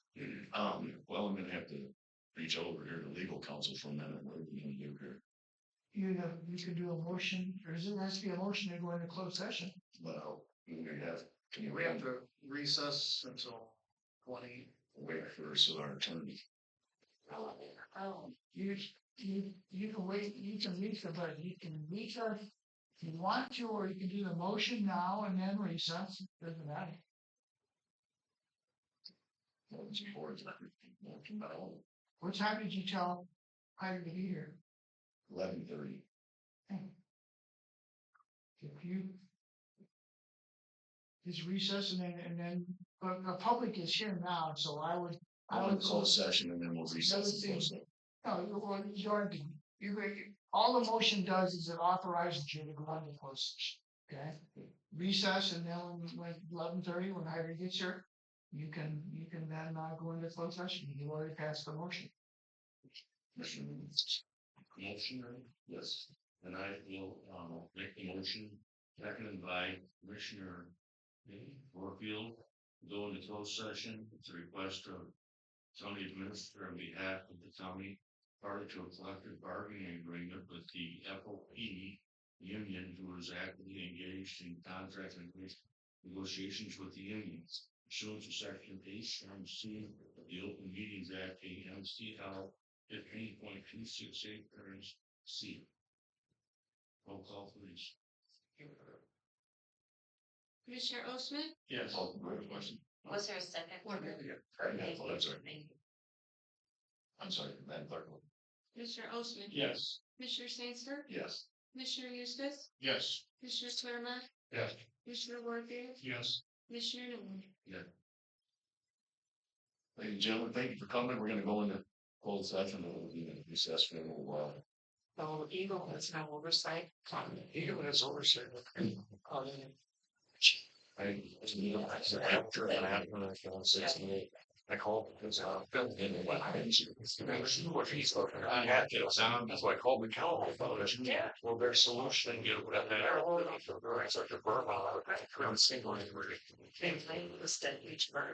Um, well, I'm gonna have to reach over here to legal counsel for a minute. What are we gonna do here? You know, you could do a motion, or is it, has to be a motion to go into closed session? Well, we have, can you We have to recess until twenty. wait for us, our attorney? Oh. You, you, you can wait, you can reach the, but you can reach us if you want to, or you can do the motion now and then recess, doesn't matter. Well, it's important. What time did you tell Hyder to be here? Eleven thirty. If you. It's recess and then, and then, but the public is here now, so I would, I I'll would. close session and then we'll recess. and close it. No, you, well, you aren't, you, you- all the motion does is it authorizes you to go on the closed session, okay? Recess and then like eleven thirty, when Hyder gets here, you can, you can then uh go into closed session, you already passed the motion. Motion. Motion, right? yes, and I will, um, make the motion, seconded by Commissioner Warfield, go into closed session, it's a request of county administrator on behalf of the county, party to a collective bargaining agreement with the FOP union who is actively engaged in contract and negotiations with the unions. Pursuant to section eight, term C of the Open Meetings Act, AMCL fifteen point two six eight turns C. Roll call please. Commissioner Ostman, Yes. Oh, question. was there a second? Thank you. Thank you. I'm sorry, Madam Clerk. Commissioner Ostman. Yes. Commissioner Sangster, Yes. Commissioner Eustace, Yes. Commissioner Swerma, Yes. Commissioner Warfield, Yes. Commissioner Newman. Ladies and gentlemen, thank you for coming. We're gonna go into closed session and we'll be in recess for a little while. So Eagle has no oversight. Eagle has oversight. Um, I, it's an after and after and after six and eight. I called because uh, Phil didn't know what happened. She was he's looking. I had to sound, that's why I called the county. Yeah. Well, their solution, you know, whatever. They're all, they're such a burn. I'm single. They claim the state each burn.